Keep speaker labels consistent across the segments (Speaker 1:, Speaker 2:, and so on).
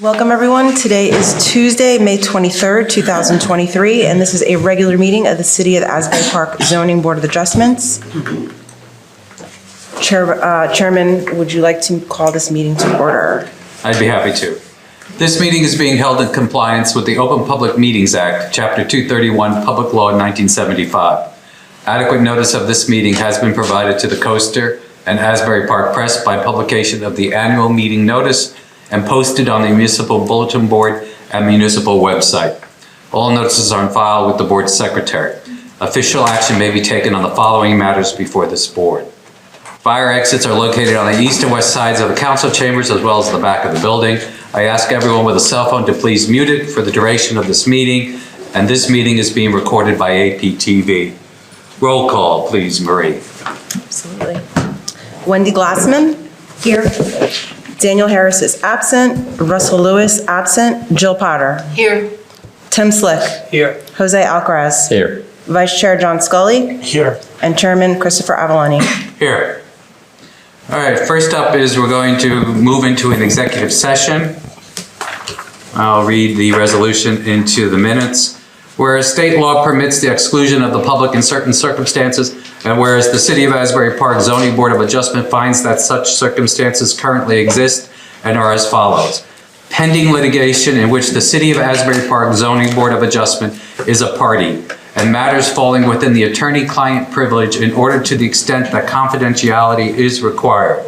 Speaker 1: Welcome, everyone. Today is Tuesday, May 23rd, 2023, and this is a regular meeting of the City of Asbury Park Zoning Board of Adjustments. Chair- uh, Chairman, would you like to call this meeting to order?
Speaker 2: I'd be happy to. This meeting is being held in compliance with the Open Public Meetings Act, Chapter 231, Public Law 1975. Adequate notice of this meeting has been provided to the Coaster and Asbury Park Press by publication of the annual meeting notice and posted on the municipal bulletin board and municipal website. All notices are on file with the board secretary. Official action may be taken on the following matters before this board. Fire exits are located on the east and west sides of the council chambers as well as the back of the building. I ask everyone with a cell phone to please mute it for the duration of this meeting, and this meeting is being recorded by APTV. Roll call, please, Marie.
Speaker 1: Absolutely. Wendy Glassman? Here. Daniel Harris is absent. Russell Lewis, absent. Jill Potter.
Speaker 3: Here.
Speaker 1: Tim Slick.
Speaker 3: Here.
Speaker 1: Jose Alcaraz.
Speaker 4: Here.
Speaker 1: Vice Chair John Scully.
Speaker 3: Here.
Speaker 1: And Chairman Christopher Avaloni.
Speaker 2: Here. All right, first up is we're going to move into an executive session. I'll read the resolution into the minutes. Whereas state law permits the exclusion of the public in certain circumstances, and whereas the City of Asbury Park Zoning Board of Adjustment finds that such circumstances currently exist and are as follows. Pending litigation in which the City of Asbury Park Zoning Board of Adjustment is a party, and matters falling within the attorney-client privilege in order to the extent that confidentiality is required.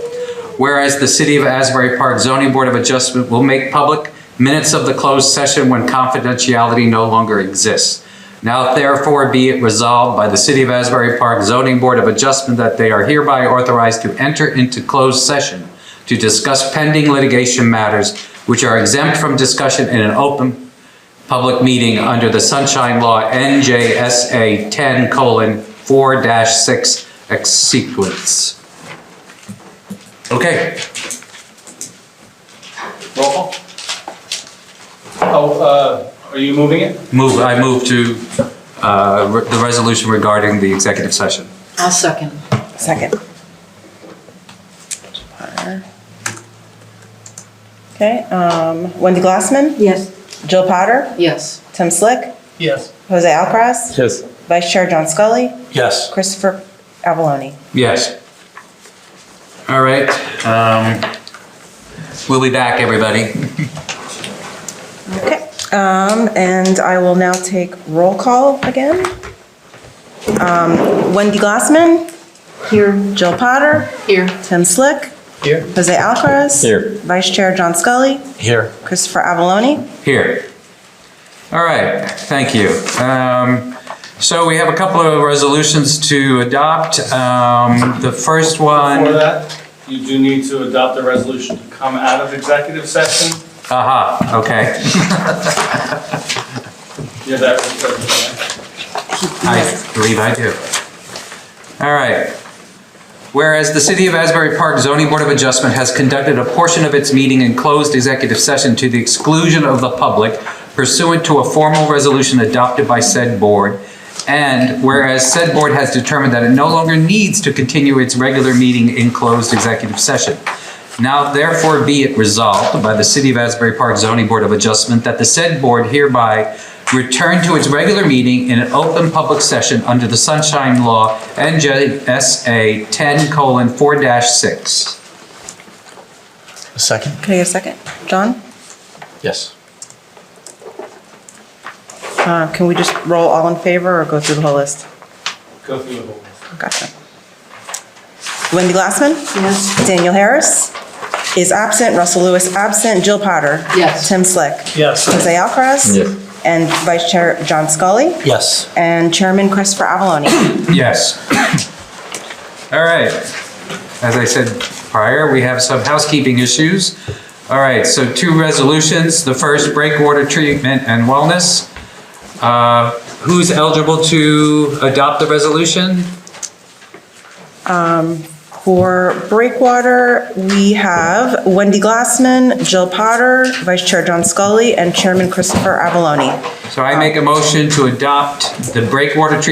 Speaker 2: Whereas the City of Asbury Park Zoning Board of Adjustment will make public minutes of the closed session when confidentiality no longer exists. Now therefore be it resolved by the City of Asbury Park Zoning Board of Adjustment that they are hereby authorized to enter into closed session to discuss pending litigation matters which are exempt from discussion in an open public meeting under the Sunshine Law NJSA 10:4-6 ex sequence. Okay.
Speaker 5: Roll call. Oh, uh, are you moving it?
Speaker 2: Move, I move to uh, re- the resolution regarding the executive session.
Speaker 3: I'll second.
Speaker 1: Second. Okay, um, Wendy Glassman,
Speaker 3: Yes.
Speaker 1: Jill Potter,
Speaker 3: Yes.
Speaker 1: Tim Slick,
Speaker 5: Yes.
Speaker 1: Jose Alcaraz,
Speaker 4: Yes.
Speaker 1: Vice Chair John Scully,
Speaker 5: Yes.
Speaker 1: Christopher Avaloni.
Speaker 2: Yes. All right. um, We'll be back, everybody.
Speaker 1: Okay, um, and I will now take roll call again. Um, Wendy Glassman. Here. Jill Potter,
Speaker 3: Here.
Speaker 1: Tim Slick,
Speaker 5: Here?
Speaker 1: Jose Alcaraz.
Speaker 4: Here.
Speaker 1: Vice Chair John Scully,
Speaker 5: Here.
Speaker 1: Christopher Avaloni.
Speaker 2: Here. All right, thank you. Um, So we have a couple of resolutions to adopt. Um, The first
Speaker 5: For
Speaker 2: one,
Speaker 5: that, you do need to adopt a resolution to come out of executive session.
Speaker 2: aha, uh-huh, okay.
Speaker 5: Yeah, that was perfect.
Speaker 2: I believe I do. All right. Whereas the City of Asbury Park Zoning Board of Adjustment has conducted a portion of its meeting in closed executive session to the exclusion of the public pursuant to a formal resolution adopted by said board, and whereas said board has determined that it no longer needs to continue its regular meeting in closed executive session. Now therefore be it resolved by the City of Asbury Park Zoning Board of Adjustment that the said board hereby return to its regular meeting in an open public session under the Sunshine Law NJSA 10:4-6.
Speaker 6: A second?
Speaker 1: Can I get a second? John?
Speaker 6: Yes.
Speaker 1: Uh, Can we just roll all in favor or go through the whole list?
Speaker 5: Go through the whole.
Speaker 1: Gotcha. Wendy Glassman?
Speaker 3: Yes.
Speaker 1: Daniel Harris is absent. Russell Lewis absent. Jill Potter?
Speaker 3: Yes.
Speaker 1: Tim Slick?
Speaker 6: Yes.
Speaker 1: Jose Alcaraz?
Speaker 4: Yes.
Speaker 1: And Vice Chair John Scully?
Speaker 6: Yes.
Speaker 1: And Chairman Christopher Avaloni?
Speaker 2: Yes. All right. As I said prior, we have some housekeeping issues. All right, so two resolutions. The first, breakwater treatment and wellness. Uh, Who's eligible to adopt the resolution?
Speaker 1: For Breakwater, we have Wendy Glassman, Jill Potter, Vice Chair John Scully, and Chairman Christopher Avaloni.
Speaker 2: So I make a motion to adopt the breakwater treatment